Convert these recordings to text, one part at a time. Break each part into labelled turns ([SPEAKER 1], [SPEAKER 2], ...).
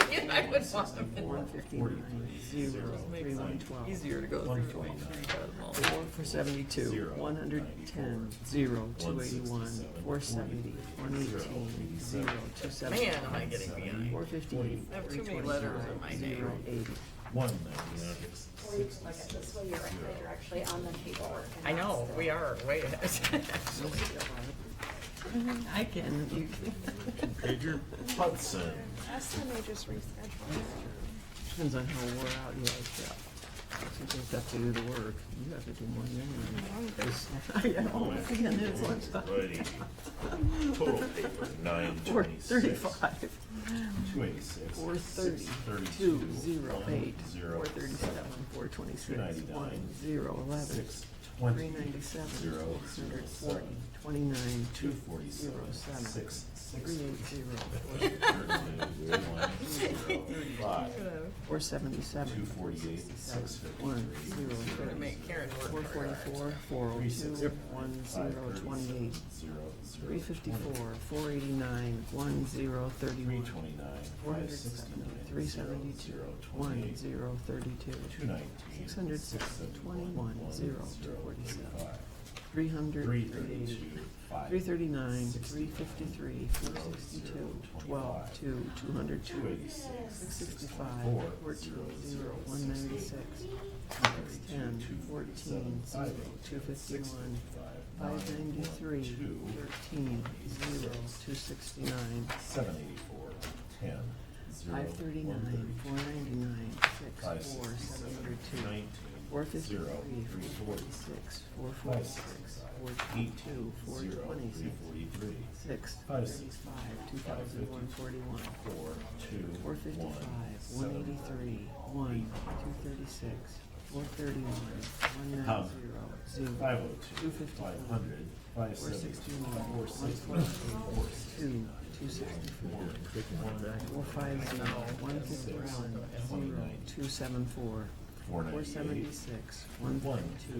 [SPEAKER 1] I would want them in
[SPEAKER 2] One
[SPEAKER 1] there.
[SPEAKER 2] fifty-nine, zero, three one twelve.
[SPEAKER 1] Easier to go through.
[SPEAKER 2] One
[SPEAKER 1] right now,
[SPEAKER 2] twelve.
[SPEAKER 1] but well,
[SPEAKER 2] Four for seventy-two, one hundred ten, zero, two eighty-one, four seventy, one eighteen, zero, two seventy.
[SPEAKER 1] Man, am I getting behind.
[SPEAKER 2] Four fifty-eight,
[SPEAKER 1] I have
[SPEAKER 2] three
[SPEAKER 1] too many letters in my
[SPEAKER 2] twenty-five,
[SPEAKER 1] name.
[SPEAKER 2] zero, eighty.
[SPEAKER 3] One ninety-six,
[SPEAKER 4] Or you can look at this way, you're right, you're actually on the paperwork. and
[SPEAKER 1] I
[SPEAKER 4] not
[SPEAKER 1] know,
[SPEAKER 4] still-
[SPEAKER 1] we are way ahead, actually.
[SPEAKER 2] I can, you can.
[SPEAKER 3] Pager Hudson.
[SPEAKER 5] Ask them they just reschedule.
[SPEAKER 2] Depends on how wore out you are, yeah. You just have to do the work, you have to do more than anyone. Oh, again, it's lunchtime.
[SPEAKER 3] Righty. Total paper, nine
[SPEAKER 2] Four
[SPEAKER 3] twenty-six.
[SPEAKER 2] thirty-five,
[SPEAKER 3] Two eighty-six.
[SPEAKER 2] four thirty, two, zero, eight, four thirty-seven, four twenty-six, one, zero, eleven,
[SPEAKER 3] Six
[SPEAKER 2] three
[SPEAKER 3] twenty.
[SPEAKER 2] ninety-seven,
[SPEAKER 3] Zero,
[SPEAKER 2] six
[SPEAKER 3] zero,
[SPEAKER 2] hundred forty,
[SPEAKER 3] seven.
[SPEAKER 2] twenty-nine,
[SPEAKER 3] Two
[SPEAKER 2] two,
[SPEAKER 3] forty-seven.
[SPEAKER 2] zero, seven,
[SPEAKER 3] Six, six.
[SPEAKER 2] three eight zero,
[SPEAKER 3] Thirty-two, one, zero, Five.
[SPEAKER 2] four seventy-seven,
[SPEAKER 3] Two forty-eight, six
[SPEAKER 2] one,
[SPEAKER 3] fifty-three.
[SPEAKER 2] zero,
[SPEAKER 1] Gonna
[SPEAKER 2] thirty.
[SPEAKER 1] make Karen
[SPEAKER 2] Four
[SPEAKER 1] work harder.
[SPEAKER 2] forty-four, four oh
[SPEAKER 3] Three six.
[SPEAKER 2] two, one
[SPEAKER 3] Five
[SPEAKER 2] zero
[SPEAKER 3] thirty-seven,
[SPEAKER 2] twenty-eight,
[SPEAKER 3] Zero, zero.
[SPEAKER 2] three fifty-four, four eighty-nine, one zero
[SPEAKER 3] Three
[SPEAKER 2] thirty-one, four
[SPEAKER 3] twenty-nine,
[SPEAKER 2] hundred
[SPEAKER 3] five
[SPEAKER 2] seventy,
[SPEAKER 3] sixty-nine.
[SPEAKER 2] three
[SPEAKER 3] zero,
[SPEAKER 2] seventy-two,
[SPEAKER 3] zero,
[SPEAKER 2] one
[SPEAKER 3] twenty-eight,
[SPEAKER 2] zero
[SPEAKER 3] Two
[SPEAKER 2] thirty-two,
[SPEAKER 3] nineteen.
[SPEAKER 2] Six hundred
[SPEAKER 3] six,
[SPEAKER 2] twenty-one,
[SPEAKER 3] one,
[SPEAKER 2] zero,
[SPEAKER 3] zero,
[SPEAKER 2] two forty-seven.
[SPEAKER 3] thirty-five.
[SPEAKER 2] three hundred,
[SPEAKER 3] Three
[SPEAKER 2] three
[SPEAKER 3] thirty-two,
[SPEAKER 2] eighty,
[SPEAKER 3] five.
[SPEAKER 2] three thirty-nine, three
[SPEAKER 3] Sixty-nine,
[SPEAKER 2] fifty-three,
[SPEAKER 3] zero,
[SPEAKER 2] four
[SPEAKER 3] zero,
[SPEAKER 2] sixty-two, twelve,
[SPEAKER 3] twenty-five.
[SPEAKER 2] two, two hundred
[SPEAKER 3] Two
[SPEAKER 2] two,
[SPEAKER 3] eighty-six.
[SPEAKER 2] six sixty-five,
[SPEAKER 3] sixty-four,
[SPEAKER 2] fourteen, zero,
[SPEAKER 3] zero,
[SPEAKER 2] one
[SPEAKER 3] sixty-eight.
[SPEAKER 2] ninety-six, six ten, fourteen, zero, two fifty-one, Five ninety-three, thirteen, zero, two sixty-nine,
[SPEAKER 3] Seven eighty-four, ten, zero,
[SPEAKER 2] five thirty-nine, four ninety-nine,
[SPEAKER 3] Five
[SPEAKER 2] six, four, seven
[SPEAKER 3] sixty-seven,
[SPEAKER 2] hundred two,
[SPEAKER 3] nineteen,
[SPEAKER 2] four
[SPEAKER 3] zero,
[SPEAKER 2] fifty-three,
[SPEAKER 3] three
[SPEAKER 2] four
[SPEAKER 3] forty,
[SPEAKER 2] forty-six, four
[SPEAKER 3] five
[SPEAKER 2] forty-six, four
[SPEAKER 3] sixty-five,
[SPEAKER 2] twenty-two,
[SPEAKER 3] eight,
[SPEAKER 2] four
[SPEAKER 3] zero, three
[SPEAKER 2] twenty-six,
[SPEAKER 3] forty-three,
[SPEAKER 2] six,
[SPEAKER 3] Five
[SPEAKER 2] thirty-five,
[SPEAKER 3] Five
[SPEAKER 2] two
[SPEAKER 3] fifty.
[SPEAKER 2] thousand one forty-one,
[SPEAKER 3] four,
[SPEAKER 2] four
[SPEAKER 3] two,
[SPEAKER 2] fifty-five,
[SPEAKER 3] one,
[SPEAKER 2] one
[SPEAKER 3] seven.
[SPEAKER 2] eighty-three, one, two thirty-six, four thirty-one, one nine
[SPEAKER 3] Hub.
[SPEAKER 2] zero, zero.
[SPEAKER 3] Five oh two,
[SPEAKER 2] Two fifty
[SPEAKER 3] five
[SPEAKER 2] four.
[SPEAKER 3] hundred, five
[SPEAKER 2] Four
[SPEAKER 3] seventy,
[SPEAKER 2] sixty-one,
[SPEAKER 3] four
[SPEAKER 2] one
[SPEAKER 3] sixty-nine, four sixty-nine.
[SPEAKER 2] Two, two sixty-four, four five zero, one fifty-one, zero, two seven four,
[SPEAKER 3] Four
[SPEAKER 2] four
[SPEAKER 3] ninety-eight,
[SPEAKER 2] seventy-six, one
[SPEAKER 3] One,
[SPEAKER 2] thirty-two,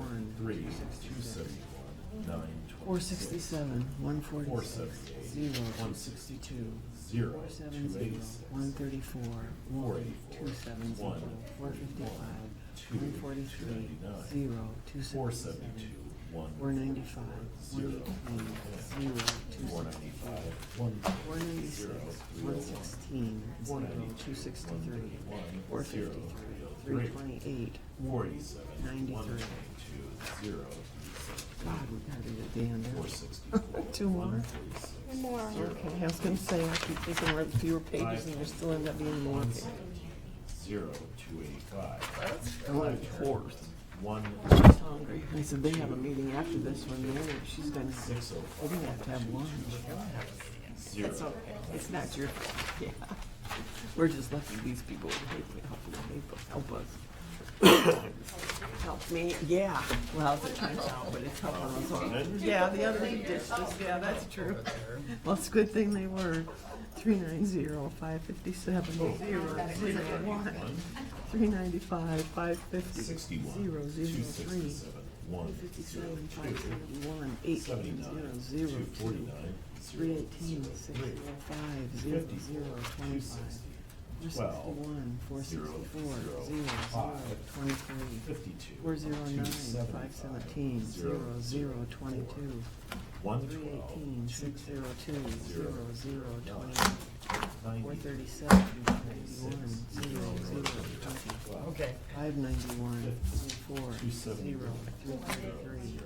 [SPEAKER 2] one,
[SPEAKER 3] three,
[SPEAKER 2] two
[SPEAKER 3] two
[SPEAKER 2] sixty-six.
[SPEAKER 3] seventy-one, nine twenty-six.
[SPEAKER 2] Four sixty-seven, one
[SPEAKER 3] Four
[SPEAKER 2] forty-six,
[SPEAKER 3] seventy-eight,
[SPEAKER 2] zero,
[SPEAKER 3] one
[SPEAKER 2] two
[SPEAKER 3] sixty-two,
[SPEAKER 2] sixty-two,
[SPEAKER 3] zero,
[SPEAKER 2] four seven
[SPEAKER 3] two
[SPEAKER 2] zero,
[SPEAKER 3] eighty-six.
[SPEAKER 2] one thirty-four,
[SPEAKER 3] Four
[SPEAKER 2] one,
[SPEAKER 3] eighty-four,
[SPEAKER 2] two seven zero,
[SPEAKER 3] one,
[SPEAKER 2] four
[SPEAKER 3] one,
[SPEAKER 2] fifty-five,
[SPEAKER 3] two,
[SPEAKER 2] one forty-three,
[SPEAKER 3] two ninety-nine,
[SPEAKER 2] zero, two
[SPEAKER 3] Four
[SPEAKER 2] seventy-seven.
[SPEAKER 3] seventy-two, one.
[SPEAKER 2] Four ninety-five,
[SPEAKER 3] Zero.
[SPEAKER 2] one eighteen, zero, two
[SPEAKER 3] Four
[SPEAKER 2] sixty-four.
[SPEAKER 3] ninety-five, one.
[SPEAKER 2] Four ninety-six, one sixteen, zero, two sixty-three, four fifty-three, three twenty-eight.
[SPEAKER 3] Four eighty-seven, one
[SPEAKER 2] Ninety-three.
[SPEAKER 3] twenty-two, zero,
[SPEAKER 2] God, we gotta get the end
[SPEAKER 3] four sixty-four.
[SPEAKER 2] Two more?
[SPEAKER 5] One more.
[SPEAKER 2] Okay, I was gonna say, I keep thinking we're at fewer pages and there still end up being more.
[SPEAKER 3] One seventy, zero, two eighty-five.
[SPEAKER 1] That's-
[SPEAKER 2] I wanted fourth.
[SPEAKER 3] One,
[SPEAKER 2] I was hungry. I said, they have a meeting after this one, Mary, she's gonna,
[SPEAKER 3] six oh
[SPEAKER 2] we're
[SPEAKER 3] five,
[SPEAKER 2] gonna have to have lunch.
[SPEAKER 3] zero.
[SPEAKER 2] It's okay, it's not your, fault. yeah. We're just lucky these people would help me, help me, help us. Help me, yeah, well, it's a time's out, but it's helping us all. Yeah, the other one ditched us, yeah, that's true. Well, it's a good thing they were three nine zero, five fifty-seven, zero, zero, one, three ninety-five, five fifty, zero,
[SPEAKER 3] Sixty-one, two
[SPEAKER 2] zero, three,
[SPEAKER 3] sixty-seven, one, zero,
[SPEAKER 2] fifty-seven, five
[SPEAKER 3] two.
[SPEAKER 2] seventy-one, eight,
[SPEAKER 3] Seventy-nine,
[SPEAKER 2] zero,
[SPEAKER 3] two
[SPEAKER 2] zero, two,
[SPEAKER 3] forty-nine,
[SPEAKER 2] three
[SPEAKER 3] zero,
[SPEAKER 2] eighteen, six,
[SPEAKER 3] three.
[SPEAKER 2] zero, five, zero,
[SPEAKER 3] Fifty,
[SPEAKER 2] zero,
[SPEAKER 3] Two
[SPEAKER 2] twenty-five,
[SPEAKER 3] sixty,
[SPEAKER 2] four
[SPEAKER 3] Twelve,
[SPEAKER 2] sixty-one, four
[SPEAKER 3] zero,
[SPEAKER 2] sixty-four,
[SPEAKER 3] zero,
[SPEAKER 2] zero, zero,
[SPEAKER 3] five.
[SPEAKER 2] twenty-three,
[SPEAKER 3] fifty-two.
[SPEAKER 2] four zero nine,
[SPEAKER 3] two seventy-five,
[SPEAKER 2] five seventeen, zero, zero, twenty-two,
[SPEAKER 3] One
[SPEAKER 2] Three eighteen,
[SPEAKER 3] twelve,
[SPEAKER 2] six zero two,
[SPEAKER 3] Zero.
[SPEAKER 2] zero, zero, twenty, four
[SPEAKER 3] ninety,
[SPEAKER 2] thirty-seven, ninety-one, zero, zero, twenty,
[SPEAKER 1] Okay,
[SPEAKER 2] five ninety-one, four,
[SPEAKER 3] Two
[SPEAKER 2] zero,
[SPEAKER 3] seventy.
[SPEAKER 2] three thirty-three,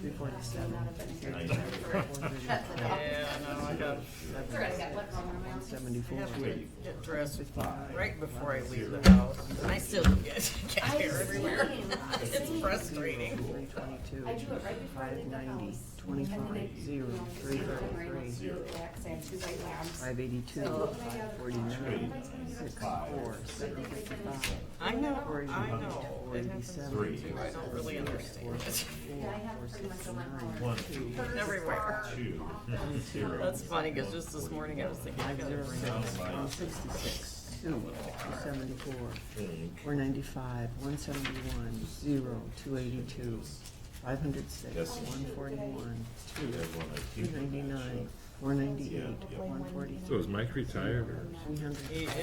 [SPEAKER 2] three forty-seven,
[SPEAKER 3] ninety,
[SPEAKER 2] four thirty-five,
[SPEAKER 1] yeah, no, I got,
[SPEAKER 4] That's all right, I got one more on my
[SPEAKER 2] one
[SPEAKER 4] own.
[SPEAKER 1] I
[SPEAKER 2] seventy-four,
[SPEAKER 1] have
[SPEAKER 2] one
[SPEAKER 1] to get dressed
[SPEAKER 2] fifty-nine.
[SPEAKER 1] right before I leave the house. And I still don't get, get
[SPEAKER 4] I
[SPEAKER 1] hair everywhere.
[SPEAKER 4] seen, I
[SPEAKER 1] It's
[SPEAKER 4] seen.
[SPEAKER 1] frustrating.
[SPEAKER 2] Three twenty-two,
[SPEAKER 4] I do it right before I
[SPEAKER 2] five
[SPEAKER 4] leave the
[SPEAKER 2] ninety,
[SPEAKER 4] house. And then
[SPEAKER 2] twenty-five,
[SPEAKER 4] I-
[SPEAKER 2] zero,
[SPEAKER 4] you know,
[SPEAKER 2] three
[SPEAKER 4] I'm wearing
[SPEAKER 2] thirty-three,
[SPEAKER 4] zero blacks, I have two white lamps.
[SPEAKER 2] five eighty-two, five forty-nine, six, four, seven fifty-five,
[SPEAKER 1] I know, I know. It happens to
[SPEAKER 3] Three.
[SPEAKER 1] me too. I don't really understand it.
[SPEAKER 4] Yeah, I have pretty much a one.
[SPEAKER 3] one,
[SPEAKER 1] Everywhere.
[SPEAKER 3] two, zero.
[SPEAKER 1] That's funny, cause just this morning I was thinking, I gotta bring up.
[SPEAKER 2] one sixty-six, two, two seventy-four,
[SPEAKER 3] Inc.
[SPEAKER 2] Four ninety-five, one seventy-one, zero, two eighty-two, five hundred six,
[SPEAKER 3] Yes.
[SPEAKER 2] one forty-one,
[SPEAKER 3] Two, everyone, I
[SPEAKER 2] two
[SPEAKER 3] keep it.
[SPEAKER 2] ninety-nine, four ninety-eight, one forty-three,
[SPEAKER 6] So is Mike retired or?
[SPEAKER 2] three hundred.
[SPEAKER 1] He